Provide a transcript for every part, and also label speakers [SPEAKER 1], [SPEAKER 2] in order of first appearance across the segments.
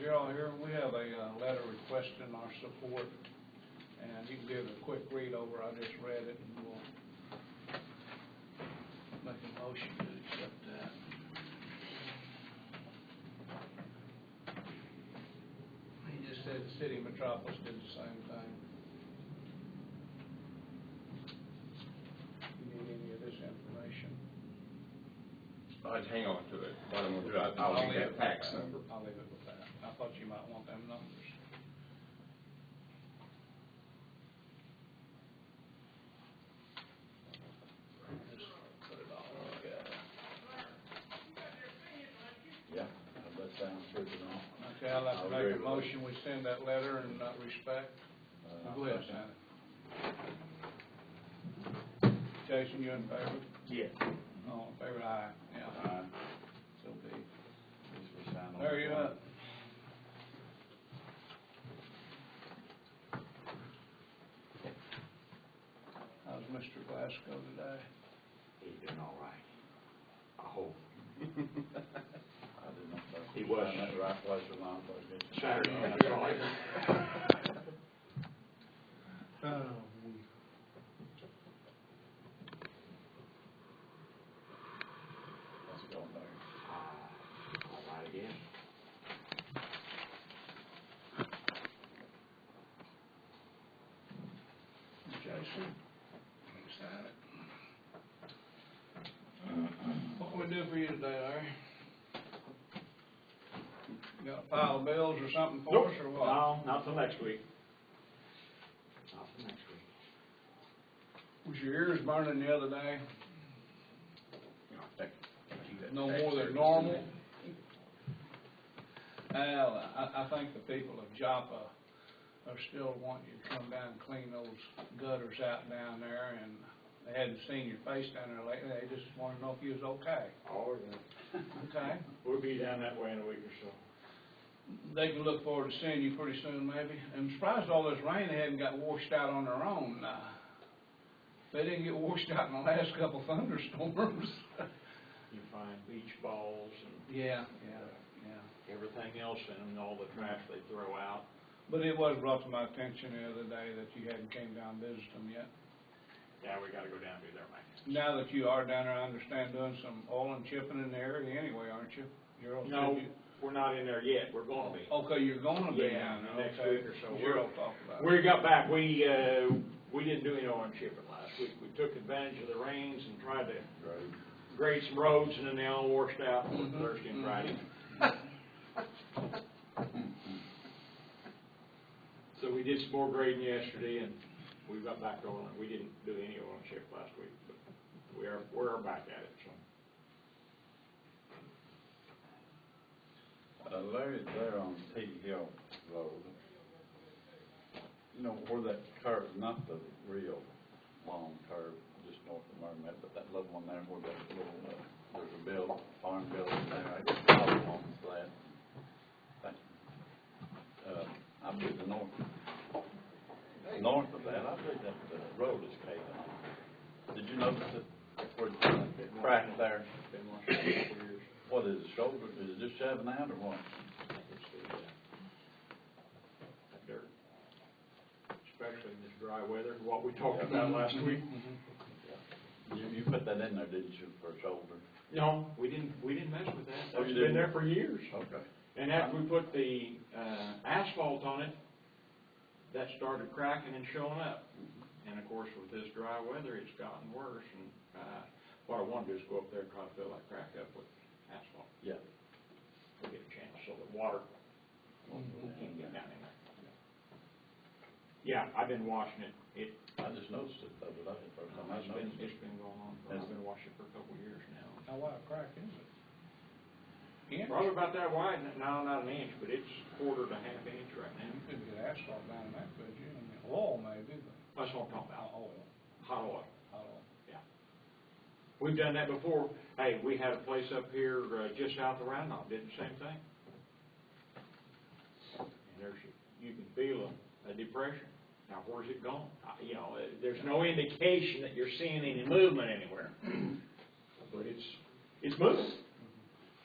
[SPEAKER 1] you're all here, we have a uh, letter requesting our support, and you can give it a quick read over, I just read it, and we'll make a motion to accept that. He just said the city of metropolis did the same thing. You need any of this information?
[SPEAKER 2] I'd hang on to it, what I'm gonna do, I- I'll leave that fax
[SPEAKER 1] with
[SPEAKER 2] number.
[SPEAKER 1] that. I'll leave it with that. I thought you might want them numbers. Just put it all together.
[SPEAKER 3] Yeah, that sounds true to me.
[SPEAKER 1] Okay, I'd like to
[SPEAKER 3] I'll agree
[SPEAKER 1] make a
[SPEAKER 3] with
[SPEAKER 1] motion, we send that letter in that respect.
[SPEAKER 3] Uh,
[SPEAKER 1] Go ahead, Shannon. Jason, you in favor?
[SPEAKER 3] Yes.
[SPEAKER 1] All in favor, aye. Yeah,
[SPEAKER 3] Alright,
[SPEAKER 1] so be. it.
[SPEAKER 3] just for sign on
[SPEAKER 1] Hurry
[SPEAKER 3] the
[SPEAKER 1] up.
[SPEAKER 3] front.
[SPEAKER 1] How's Mr. Glasgow today?
[SPEAKER 3] He's doing all right. I hope. I did not know.
[SPEAKER 4] He was.
[SPEAKER 3] I'm at the right place at the wrong place, did you?
[SPEAKER 4] Saturday, that's Uh, all I did.
[SPEAKER 3] Let's go there.
[SPEAKER 4] Ah, All right again.
[SPEAKER 1] Jason? He's had it. What can we do for you today, Larry? You got a pile of bills or something for us, or what?
[SPEAKER 4] No, not till next week. Not till next week.
[SPEAKER 1] Was your ears burning the other day?
[SPEAKER 2] You know, thank- thank you, that
[SPEAKER 1] No
[SPEAKER 2] fax
[SPEAKER 1] more
[SPEAKER 2] service
[SPEAKER 1] than
[SPEAKER 2] is
[SPEAKER 1] normal?
[SPEAKER 2] in
[SPEAKER 1] Well, I, I think the people of Joppa are still wanting you to come down and clean those gutters out down there, and they hadn't seen your face down there lately, they just wanted to know if you was okay,
[SPEAKER 4] All right.
[SPEAKER 1] okay?
[SPEAKER 4] We'll be down that way in a week or so.
[SPEAKER 1] They can look forward to seeing you pretty soon, maybe. I'm surprised all this rain they hadn't got washed out on their own, uh, they didn't get washed out in the last couple thunderstorms.
[SPEAKER 4] You find beach balls and
[SPEAKER 1] Yeah, yeah, yeah.
[SPEAKER 4] everything else in them, and all the trash they throw out.
[SPEAKER 1] But it was brought to my attention the other day that you hadn't came down and visited them yet.
[SPEAKER 4] Yeah, we gotta go down and do their maintenance.
[SPEAKER 1] Now that you are down there, I understand doing some oil and chipping in the area anyway, aren't you? You're okay.
[SPEAKER 4] No, we're not in there yet. We're gonna be.
[SPEAKER 1] Okay, you're gonna be down
[SPEAKER 4] Yeah,
[SPEAKER 1] there,
[SPEAKER 4] next
[SPEAKER 1] okay.
[SPEAKER 4] week or so.
[SPEAKER 1] You're all talking about it.
[SPEAKER 4] We got back, we, uh, we didn't do any orange chipping last week. We took advantage of the rains and tried to
[SPEAKER 3] Great.
[SPEAKER 4] grade some roads, and then they all washed out on
[SPEAKER 3] Mm-hmm.
[SPEAKER 1] Mhm,
[SPEAKER 4] Thursday
[SPEAKER 1] mhm.
[SPEAKER 4] and Friday. So we did some more grading yesterday, and we got back on it. We didn't do any oil chip last week, but we are, we're back at it, so.
[SPEAKER 3] Uh, Larry's there on T Hill Road. You know, where that curve, not the real long curve, just north of Mermet, but that little one there where that little, uh, there's a build, farm building there, I guess, probably on that. That, Uh, I believe the north, north of that, I believe that the road is paved on. Did you notice that, where the crack there,
[SPEAKER 4] Been washing it for years.
[SPEAKER 3] what is it, shoulder, is it just shoving out or what?
[SPEAKER 4] I think it's the, uh, that dirt. Especially in this dry weather, what we talked about last
[SPEAKER 3] Mm-hmm.
[SPEAKER 4] week.
[SPEAKER 3] You, you put that in there, didn't you, for shoulder?
[SPEAKER 4] No, we didn't, we didn't mess with that.
[SPEAKER 3] Oh, you
[SPEAKER 4] That's
[SPEAKER 3] didn't?
[SPEAKER 4] been there for years.
[SPEAKER 3] Okay.
[SPEAKER 4] And after we put the, uh, asphalt on it, that started cracking and showing up. And of course, with this dry weather, it's gotten worse, and, uh, what I wanna do is go up there and try to fill that crack up with asphalt.
[SPEAKER 3] Yeah.
[SPEAKER 4] We'll get a chance, so the water
[SPEAKER 1] Mm-hmm.
[SPEAKER 4] can get down in there. Yeah, I've been washing it, it,
[SPEAKER 3] I just noticed it the other day, first time I
[SPEAKER 4] it's been,
[SPEAKER 3] noticed it.
[SPEAKER 4] it's been going on, for- I've been washing it for a couple of years now.
[SPEAKER 1] How wide a crack is it? Inch?
[SPEAKER 4] Probably about that wide, no, not an inch, but it's quarter to half inch right
[SPEAKER 1] You
[SPEAKER 4] now.
[SPEAKER 1] couldn't get asphalt down in that, could you? I mean, oil maybe, but
[SPEAKER 4] That's what I'm talking
[SPEAKER 1] not
[SPEAKER 4] about,
[SPEAKER 1] oil,
[SPEAKER 4] hot oil.
[SPEAKER 1] not oil.
[SPEAKER 4] We've done that before. Hey, we had a place up here, uh, just out the Round Knob, did the same thing. And there's, you can feel a, a depression. Now, where's it gone? Uh, you know, uh, there's no indication that you're seeing any movement anywhere. But it's, it's moving.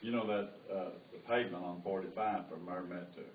[SPEAKER 3] You know that, uh, the pavement on forty-five from Mermet to